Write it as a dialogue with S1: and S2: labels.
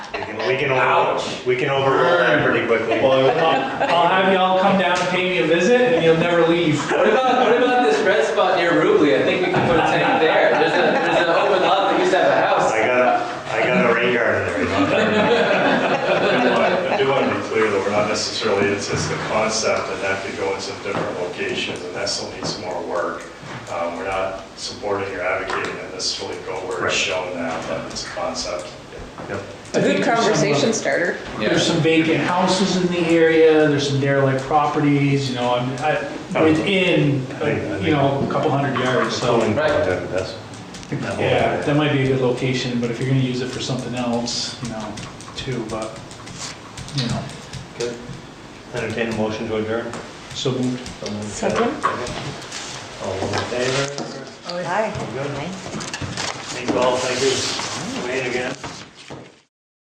S1: You know, we can overrule, we can overrule that pretty quickly.
S2: Well,
S3: I'll I'll have y'all come down and pay me a visit, and you'll never leave.
S4: What about, what about this red spot near Rubley? I think we can put a tank there. There's a, there's an open lot that used to have a house.
S1: I got a, I got a rain garden there. you know.
S2: I do want to be clear that we're not necessarily, it's just the concept and that could go in some different locations and that still needs more work. Um, We're not supporting or advocating that necessarily go where
S1: Right.
S2: it's shown now, but it's a concept.
S1: Yep.
S3: I think
S5: Good
S3: there's some, uh,
S5: conversation starter.
S3: There's some vacant houses in the area, there's some derelict properties, you know, I'm, I, within, uh, you know, a couple hundred yards, so.
S1: Right.
S3: Yeah, that might be a good location, but if you're gonna use it for something else, you know, too, but, you know,
S1: Good. Entertain a motion to adjourn.
S3: so moved.
S5: Second.
S1: All in favor?
S5: Hi.
S1: Good. Thank you all, thank you. Wayne again.